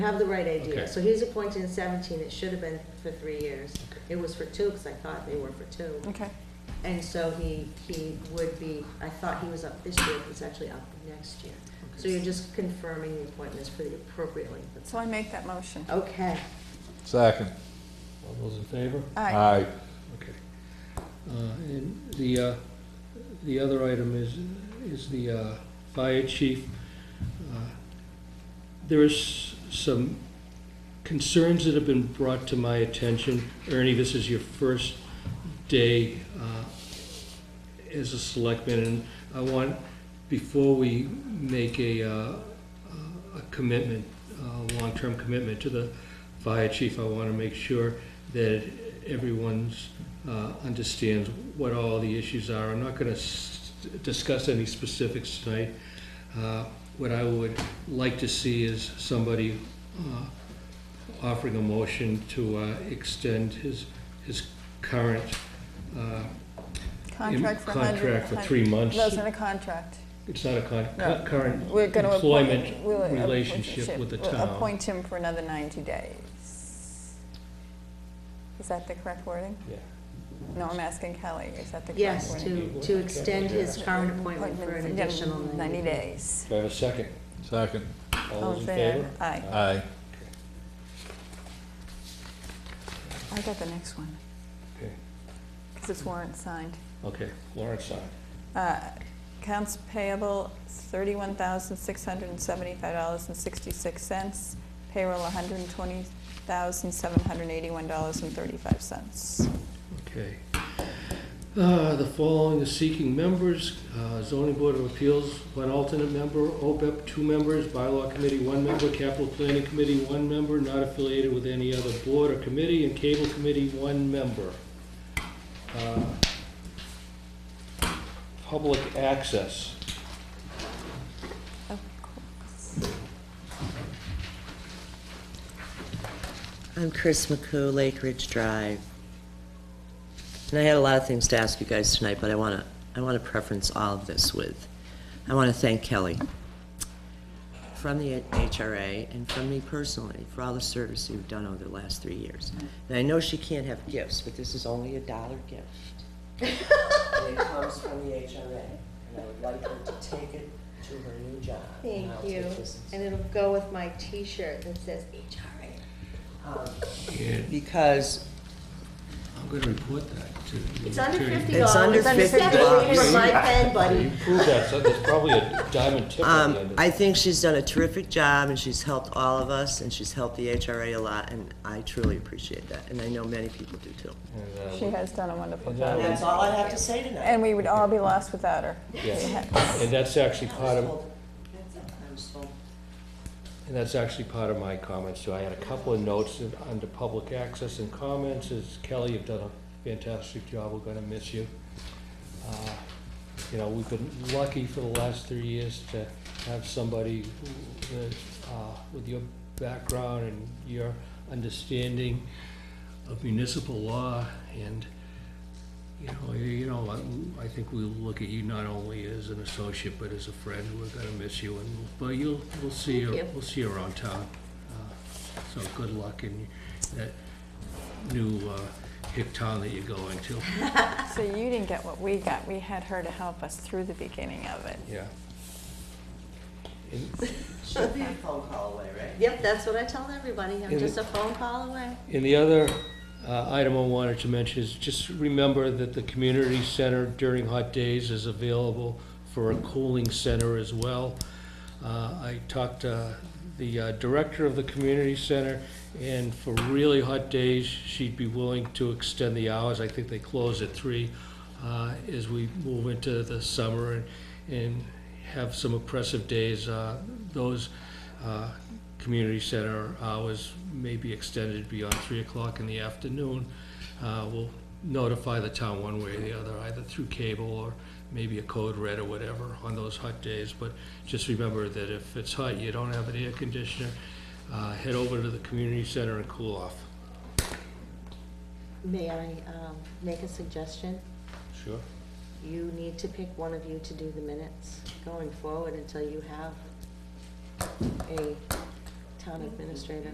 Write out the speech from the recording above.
have the right idea. Okay. So he was appointed in seventeen, it should have been for three years. It was for two, because I thought they were for two. Okay. And so he, he would be, I thought he was up this year, but he's actually up next year. So you're just confirming the appointments for the appropriate length of So I make that motion. time. Okay. Second. All those in favor? Aye. Okay. Uh, And the, uh, the other item is, is the uh, fire chief. Uh, There is some concerns that have been brought to my attention. Ernie, this is your first day uh, as a selectman, and I want, before we make a, uh, a commitment, a long-term commitment to the fire chief, I want to make sure that everyone's, uh, understands what all the issues are. I'm not going to discuss any specifics tonight. Uh, What I would like to see is somebody uh, offering a motion to uh, extend his, his current uh, Contract for a hundred. contract for three months. Those in a contract. It's not a con, No. current We're going to. employment relationship with the town. Appoint him for another 90 days. Is that the correct wording? Yeah. No, I'm asking Kelly, is that the correct wording? Yes, to, to extend his current appointment for an Appointment, yeah, additional ninety days. days. Do I have a second? Second. All those in favor? favor? Aye. Aye. I got the next one, Okay. because it's warrant signed. Okay, Lawrence signed. Uh, Accounts payable, thirty-one thousand, six hundred and seventy-five dollars and sixty-six cents. Payroll, hundred and twenty thousand, seven hundred and eighty-one dollars and thirty-five cents. Okay. Uh, The following is seeking members, Uh, zoning board of appeals, one alternate member, OPEB, two members, bylaw committee, one member, capital planning committee, one member, not affiliated with any other board or committee, and cable committee, one member. Uh, Public access. Of course. I'm Chris McCoo, Lake Ridge Drive. And I had a lot of things to ask you guys tonight, but I want to, I want to preference all of this with, I want to thank Kelly from the HRA and from me personally for all the service you've done over the last three years. And I know she can't have gifts, but this is only a dollar gift. And it comes from the HRA, and I would like her to take it to her new job. Thank And I'll you. take this And it'll go with my T-shirt that says HRA. Um, Yeah, Because I'm going to report that to the It's under attorney. fifty dollars. It's under $50. For my pen, buddy. You proved that, so there's probably a diamond tip on Um, the end of I think she's done a terrific job, and she's helped all of us, and she's helped the HRA a lot, and I truly appreciate that, and I know many people do too. And, uh, She has done a wonderful And that job. was- all I have to say tonight. And we would all be lost without her. Yeah, and that's actually part of, and that's actually part of my comments, too. I had a couple of notes in- under public access and comments, is Kelly, you've done a fantastic job, we're gonna miss you. Uh, You know, we've been lucky for the last three years to have somebody who, uh, with your background and your understanding of municipal law and you know, you you know, I, I think we'll look at you not only as an associate, but as a friend. We're gonna miss you, and, but you'll, we'll see you, Thank you. we'll see you around town. Uh, So good luck in that new, uh, hick town that you're going to. So you didn't get what we got, we had her to help us through the beginning of it. Yeah. In, She'll be a phone call away, right? Yep, that's what I tell everybody. I'm And just it- a phone call away. And the other uh, item I wanted to mention is just remember that the community center during hot days is available for a cooling center as well. Uh, I talked to the uh, director of the community center, and for really hot days, she'd be willing to extend the hours. I think they close at three uh, as we move into the summer and- and have some oppressive days. Uh, Those uh, community center hours may be extended beyond three o'clock in the afternoon. Uh, We'll notify the town one way or the other, either through cable or maybe a code red or whatever on those hot days. But just remember that if it's hot, you don't have an air conditioner, uh, head over to the community center and cool off. May I um, make a suggestion? Sure. You need to pick one of you to do the minutes going forward until you have a town administrator.